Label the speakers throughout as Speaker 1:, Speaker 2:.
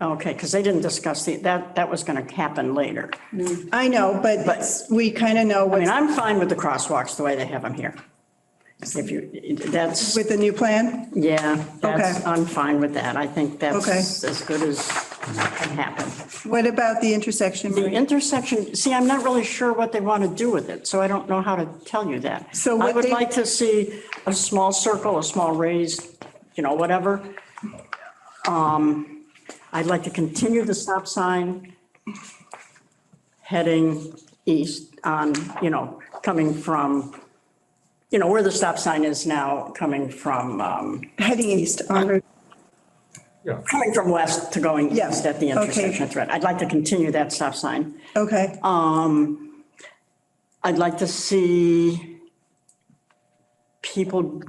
Speaker 1: Okay, because they didn't discuss the, that, that was going to happen later.
Speaker 2: I know, but we kind of know
Speaker 1: I mean,
Speaker 2: what's
Speaker 1: I'm fine with the crosswalks the way they have them here. If you, that's,
Speaker 2: with the new plan.
Speaker 1: yeah, that's,
Speaker 2: Okay.
Speaker 1: I'm fine with that. I think
Speaker 2: Okay.
Speaker 1: that's as good as can happen.
Speaker 2: What about the intersection?
Speaker 1: The
Speaker 2: Maria?
Speaker 1: intersection, see, I'm not really sure what they want to do with it, so I don't know how to tell you that.
Speaker 2: So
Speaker 1: I
Speaker 2: what
Speaker 1: would
Speaker 2: they-
Speaker 1: like to see a small circle, a small raised, you know, whatever. Um, I'd like to continue the stop sign heading east on, you know, coming from, you know, where the stop sign is now, coming from, um,
Speaker 2: Heading east on Route,
Speaker 3: Yeah,
Speaker 1: coming from west to going
Speaker 2: Yeah,
Speaker 1: east at the
Speaker 2: okay.
Speaker 1: intersection of Thread. I'd like to continue that stop sign.
Speaker 2: okay.
Speaker 1: Um, I'd like to see people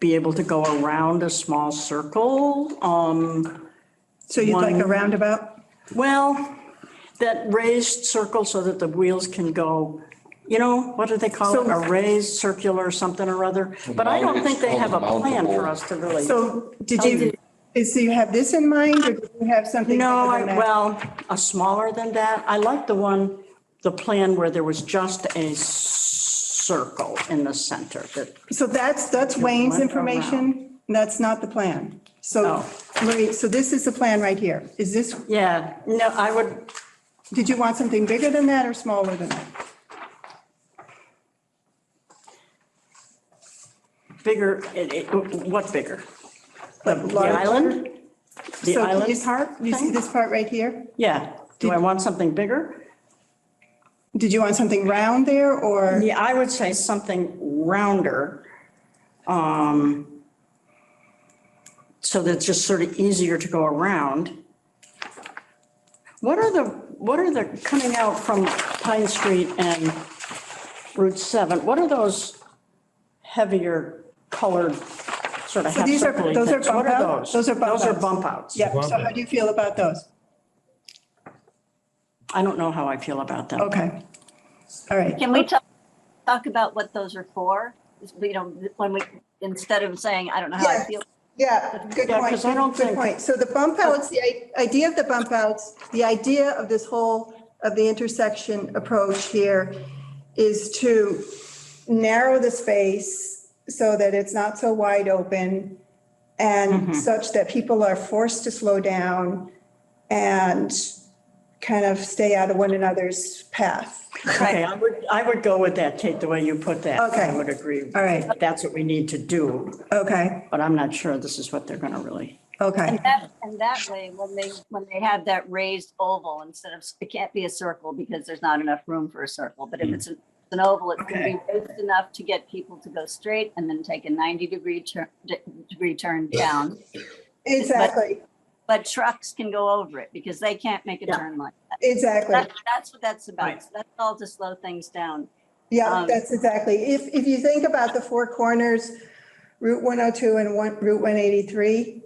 Speaker 1: be able to go around a small circle. Um,
Speaker 2: So you'd like a
Speaker 1: one-
Speaker 2: roundabout?
Speaker 1: Well, that raised circle so that the wheels can go, you know, what do they call it? A raised circular something or other. But I don't think they have a plan for us to really.
Speaker 2: So did you, is, do you have this in mind or do you have something?
Speaker 1: No,
Speaker 2: other
Speaker 1: I,
Speaker 2: than that?
Speaker 1: well, a smaller than that. I like the one, the plan where there was just a circle in the center that
Speaker 2: So that's, that's Wayne's
Speaker 1: went
Speaker 2: information. That's not the plan. So,
Speaker 1: Oh.
Speaker 2: Marie, so this is the plan right here. Is this,
Speaker 1: Yeah, no, I would,
Speaker 2: did you want something bigger than that or smaller than that?
Speaker 1: bigger, it- it- what bigger?
Speaker 2: Like
Speaker 1: The
Speaker 2: larger?
Speaker 1: island? The
Speaker 2: So can
Speaker 1: island
Speaker 2: you-
Speaker 1: part
Speaker 2: You see
Speaker 1: thing?
Speaker 2: this part right here?
Speaker 1: Yeah. Do I want something bigger?
Speaker 2: Did you want something round there or?
Speaker 1: Yeah, I would say something rounder. um, So that it's just sort of easier to go around. What are the, what are the, coming out from Pine Street and Route 7, what are those heavier colored, sort of
Speaker 2: So
Speaker 1: half
Speaker 2: these are-
Speaker 1: circle
Speaker 2: those are
Speaker 1: things? What
Speaker 2: bump
Speaker 1: are
Speaker 2: out-
Speaker 1: those?
Speaker 2: those are bump
Speaker 1: Those are
Speaker 2: outs.
Speaker 1: bump outs.
Speaker 2: Yeah, so how do you feel about those?
Speaker 1: I don't know how I feel about them.
Speaker 2: Okay. All right.
Speaker 4: Can we talk, talk about what those are for? You know, when we, instead of saying, I don't know how I
Speaker 2: Yeah.
Speaker 4: feel.
Speaker 2: Yeah, good
Speaker 1: Yeah,
Speaker 2: point.
Speaker 1: 'cause I don't
Speaker 2: good
Speaker 1: think-
Speaker 2: point. So the bump outs, the i- idea of the bump outs, the idea of this whole, of the intersection approach here is to narrow the space so that it's not so wide open and such that people are forced to slow down and kind of stay out of one another's path.
Speaker 1: Okay, I would, I would go with that, Kate, the way you put that.
Speaker 2: Okay.
Speaker 1: I would agree.
Speaker 2: All right.
Speaker 1: That's what we need to do,
Speaker 2: Okay,
Speaker 1: but I'm not sure this is what they're going to really.
Speaker 2: okay.
Speaker 4: And that, and that way, when they, when they have that raised oval, instead of, it can't be a circle because there's not enough room for a circle.
Speaker 1: Mm.
Speaker 4: But if it's an an oval, it's gonna be raised enough to get people to go straight and then take a ninety degree turn, d- degree turn down.
Speaker 2: Exactly,
Speaker 4: But trucks can go over it because they can't make a
Speaker 1: Yeah.
Speaker 4: turn like that.
Speaker 2: exactly.
Speaker 4: That, that's what that's about.
Speaker 1: Right.
Speaker 4: So That's all to slow things down.
Speaker 2: Yeah,
Speaker 4: Um,
Speaker 2: that's exactly. If, if you think about the four corners, Route 102 and one, Route 183,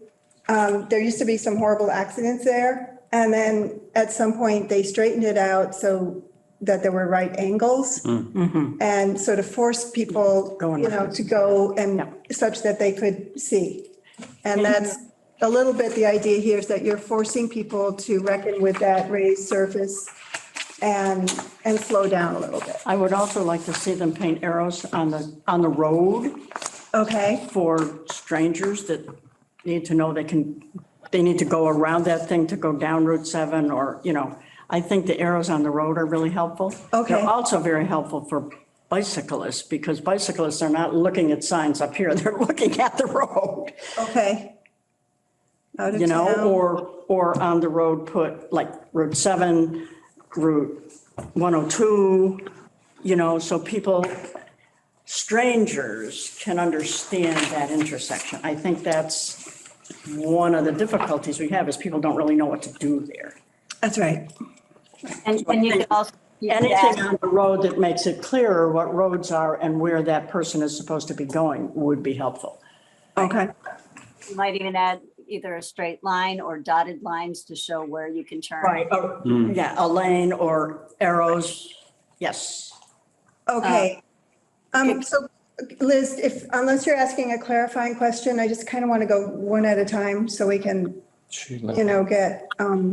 Speaker 2: um, there used to be some horrible accidents there. And then at some point, they straightened it out so that there were right angles
Speaker 1: mm-hmm.
Speaker 2: and sort of forced people,
Speaker 1: Going
Speaker 2: you know,
Speaker 1: around.
Speaker 2: to go and
Speaker 1: Yeah.
Speaker 2: such that they could see. And that's a little bit the idea here is that you're forcing people to reckon with that raised surface and, and slow down a little bit.
Speaker 1: I would also like to see them paint arrows on the, on the road
Speaker 2: Okay.
Speaker 1: for strangers that need to know they can, they need to go around that thing to go down Route 7 or, you know, I think the arrows on the road are really helpful.
Speaker 2: Okay.
Speaker 1: They're also very helpful for bicyclists because bicyclists are not looking at signs up here. They're looking at the road.
Speaker 2: Okay. Out of
Speaker 1: you know,
Speaker 2: town.
Speaker 1: or, or on the road, put like Route 7, Route 102, you know, so people, strangers can understand that intersection. I think that's one of the difficulties we have is people don't really know what to do there.
Speaker 2: That's right.
Speaker 4: And, and you can also. keep that-
Speaker 1: Anything on the road that makes it clearer what roads are and where that person is supposed to be going would be helpful.
Speaker 2: Okay.
Speaker 4: You might even add either a straight line or dotted lines to show where you can turn.
Speaker 1: Right, or- Oh, yeah, a lane or arrows, yes.
Speaker 2: Okay.
Speaker 1: Uh,
Speaker 2: Um, so Liz, if, unless you're asking a clarifying question, I just kind of want to go one at a time so we can
Speaker 3: She left.
Speaker 2: you know, get, um,